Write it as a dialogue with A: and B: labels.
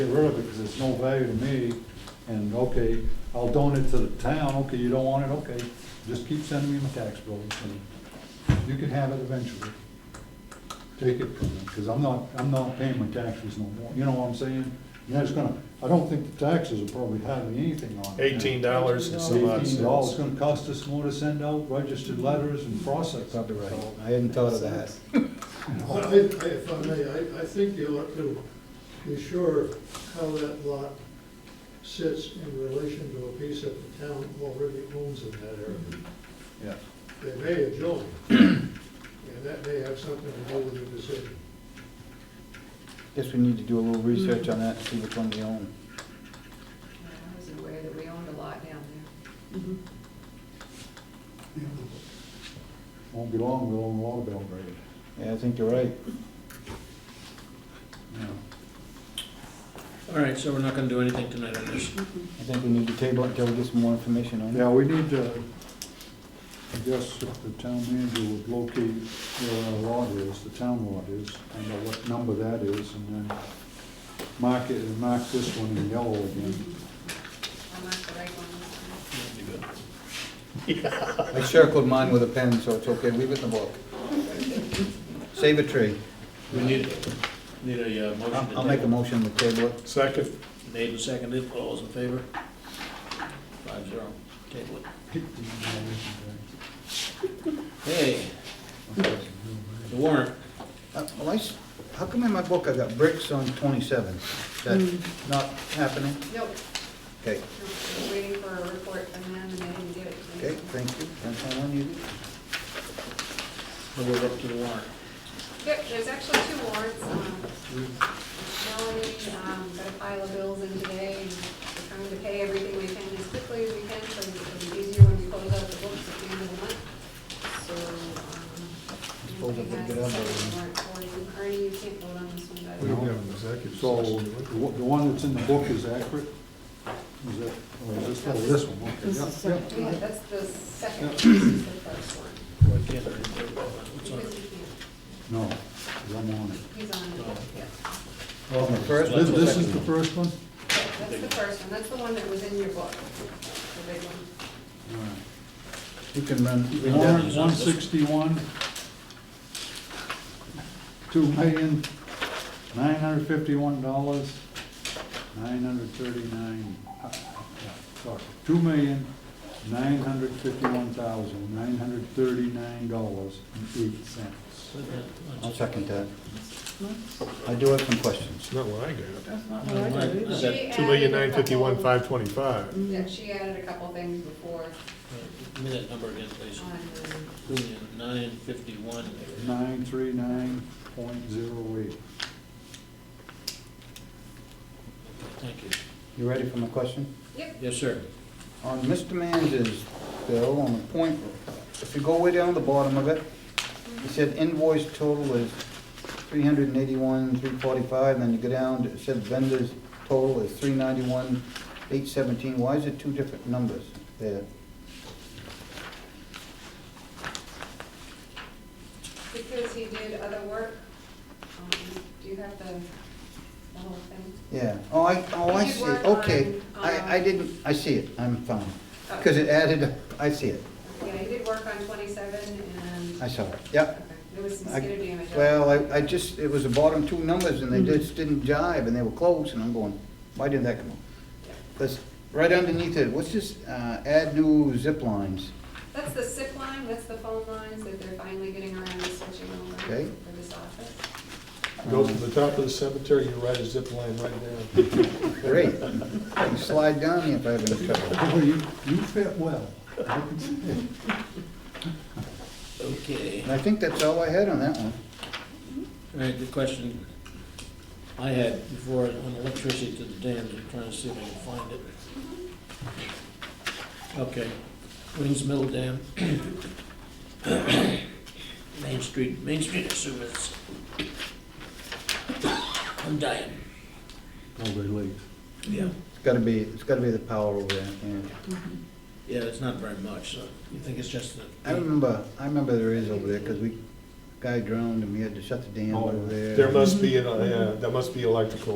A: get rid of it because it's no value to me, and okay, I'll donate to the town, okay, you don't want it, okay, just keep sending me my tax bills, and you can have it eventually. Take it from me, because I'm not, I'm not paying my taxes no more, you know what I'm saying? And that's gonna, I don't think the taxes will probably have anything on it.
B: Eighteen dollars and some odd
A: Eighteen dollars, it's
B: cents.
A: gonna cost us more to send out registered letters and process.
C: Probably right. I hadn't thought of that.
D: I, I- if I may, I, I think you ought to be sure how that lot sits in relation to a piece that the town already owns in that area.
A: Yeah.
D: They may adjoin, and that may have something to do with the decision.
C: Guess we need to do a little research on that and see which one we own.
E: I was aware that we owned a lot down there.
A: Won't be long, we'll own Lauderdale Grade.
C: Yeah, I think you're right.
F: All right, so we're not gonna do anything tonight on this.
C: I think we need to table it until we get some more information on it.
A: Yeah, we need to, I guess if the town manager would locate where our lot is, the town lot is, find out what number that is, and then mark it, and mark this one in yellow again.
E: I'm not the right one this time.
C: I circled mine with a pen, so it's okay. Leave it in the book. Save a tree.
F: We need, need a uh, motion to
C: I'll I'll make a
F: table.
C: motion to table it.
B: Second,
F: Made and seconded, all those in favor? Five zero, table it. Hey, the warrant,
C: Uh, well, I s- How come in my book I got bricks on 27? Is that not happening?
E: Nope,
C: Okay,
E: I was waiting for a report from them and they didn't get it to me.
C: okay, thank you. That's all I needed.
F: and we're up to the warrant.
E: Yep, there's actually two warrants. um, Melanie um, got a pile of bills in today, and we're trying to pay everything we can as quickly as we can, so it'll be easier when we close out the books at the end of the month. So, um,
C: Suppose I
E: anybody
C: picked
E: has
C: it
E: a
C: up already.
E: second warrant for you. Ernie, you can't vote on this one, but.
A: We don't have
D: an executive
A: So, the one- the one that's in the book is accurate? Is it, or is this, oh, this one, okay, yeah, yeah.
E: Yeah, that's the second, one, this is the first one.
F: Why can't I do that? What's on
E: Because he
F: it?
E: can't,
A: No, 'cause I'm on it.
E: he's on it, yeah.
C: Well, Oh, the first
A: This, this is the first one?
E: That's the first one, that's the one that was in your book, the big one.
A: All right.
C: You can run. read that.
A: Warrant one sixty-one, two million, nine hundred fifty-one dollars, nine hundred thirty-nine, uh, sorry, two million, nine hundred fifty-one thousand, nine hundred thirty-nine dollars and eight cents.
C: I'll second that. I do have some questions.
B: it's not what I got.
F: Is that
E: She
B: Two million
E: added
B: nine
E: a couple-
B: fifty-one five twenty-five.
C: Mm-hmm.
E: Yeah, she added a couple things before
F: Give me that number again, please.
E: on, um,
F: Nine fifty-one.
A: Nine three nine point zero eight.
F: Thank you.
C: You ready for my question?
E: yep,
F: Yes, sir.
C: On Mr. Mans's bill, on the point, if you go way down to the bottom of it, it said invoice total is three hundred and eighty-one, three forty-five, then you go down, it said vendor's total is three ninety-one, eight seventeen. Why is it two different numbers there?
E: because he did other work. Um, Do you have the, the whole thing?
C: Yeah, oh, I, oh, I
E: You
C: see,
E: work
C: okay.
E: on,
C: I, I
E: um,
C: didn't, I see it, I'm fine. Because it added, up. I see it,
E: Yeah, he did work on twenty-seven and,
C: I
E: okay,
C: saw it, yep.
E: there was some
C: I-
E: skin damage. on it.
C: Well, I, I just, it was the bottom two numbers and they just didn't jive and they were close and I'm going, why didn't that come up? That's, right underneath it, what's this, uh, add new zip lines,
E: That's the SIP line, that's the phone lines that they're finally getting around to switching over
C: Okay.
E: for this office.
B: Go from the top of the cemetery, you ride a zip line right down.
C: great. I can slide down here if I have any trouble.
A: Boy, you, you fit well. I can see it.
F: Okay.
C: And I think that's all I had on that one.
F: All right, the question I had before on electricity to the dams, I'm trying to see if I can find it. Okay, Wings Mill Dam. Main Street, Main Street, I assume it's. I'm dying.
A: Oh, they late.
F: Yeah.
C: It's gotta be, it's gotta be the power over there, yeah.
F: Yeah, it's not very much, so you think it's just the.
C: I remember, I remember there is over there, cause we, guy drowned and we had to shut the dam
A: Oh,
C: over there.
B: There must be, an- uh, yeah, there must be electrical